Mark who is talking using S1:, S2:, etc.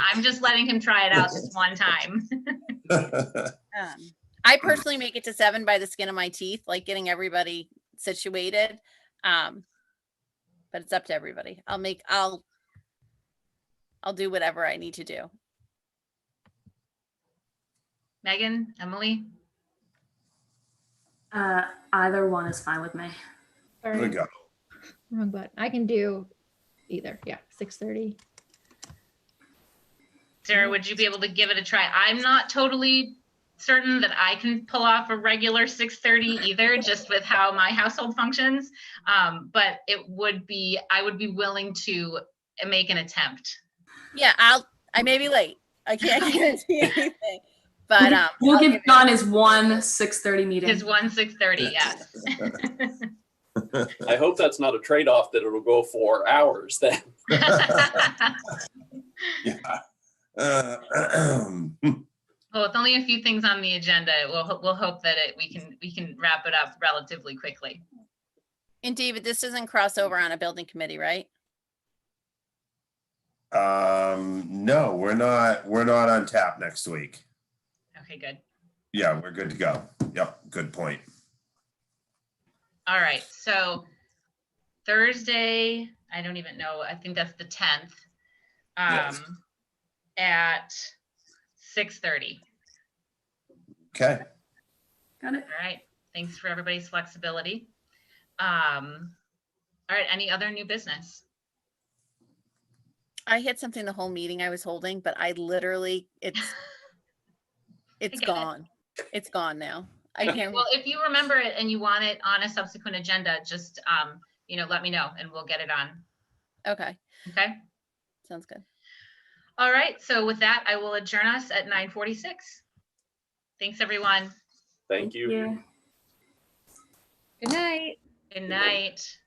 S1: I'm just letting him try it out just one time.
S2: Um, I personally make it to seven by the skin of my teeth, like getting everybody situated. Um, but it's up to everybody. I'll make, I'll, I'll do whatever I need to do.
S1: Megan, Emily,
S3: Uh, either one is fine with me.
S4: Sorry,
S5: There we go.
S4: Wrong button. I can do either. Yeah, six thirty.
S1: Sarah, would you be able to give it a try? I'm not totally certain that I can pull off a regular 6:30 either, just with how my household functions. Um, but it would be, I would be willing to make an attempt.
S2: Yeah, I'll, I may be late. I can't guarantee anything, but, um.
S3: We'll
S2: I'll
S3: give
S2: give it-
S3: John his one six thirty meeting.
S1: Is one 6:30, yes.
S6: I hope that's not a trade-off that it'll go for hours then.
S5: Yeah. Uh,
S1: Well, with only a few things on the agenda, we'll, ho- we'll hope that it, we can, we can wrap it up relatively quickly.
S2: And David, this doesn't cross over on a building committee, right?
S5: Um, no, we're not, we're not on tap next week.
S1: Okay, good.
S5: Yeah, we're good to go. Yep, good point.
S1: All right, so Thursday, I don't even know, I think that's the tenth.
S5: Yes.
S1: Um, at six thirty,
S5: Okay.
S3: Got it.
S1: all right? Thanks for everybody's flexibility. Um, all right, any other new business?
S2: I had something the whole meeting I was holding, but I literally, it's, it's
S1: get it.
S2: gone. It's gone now. I can't.
S1: Well, if you remember it and you want it on a subsequent agenda, just, um, you know, let me know and we'll get it on,
S2: Okay,
S1: okay?
S2: sounds good.
S1: All right, so with that, I will adjourn us at nine forty-six. Thanks, everyone.
S6: Thank you.
S3: Yeah.
S4: Good night.
S1: Good
S6: night.
S1: night.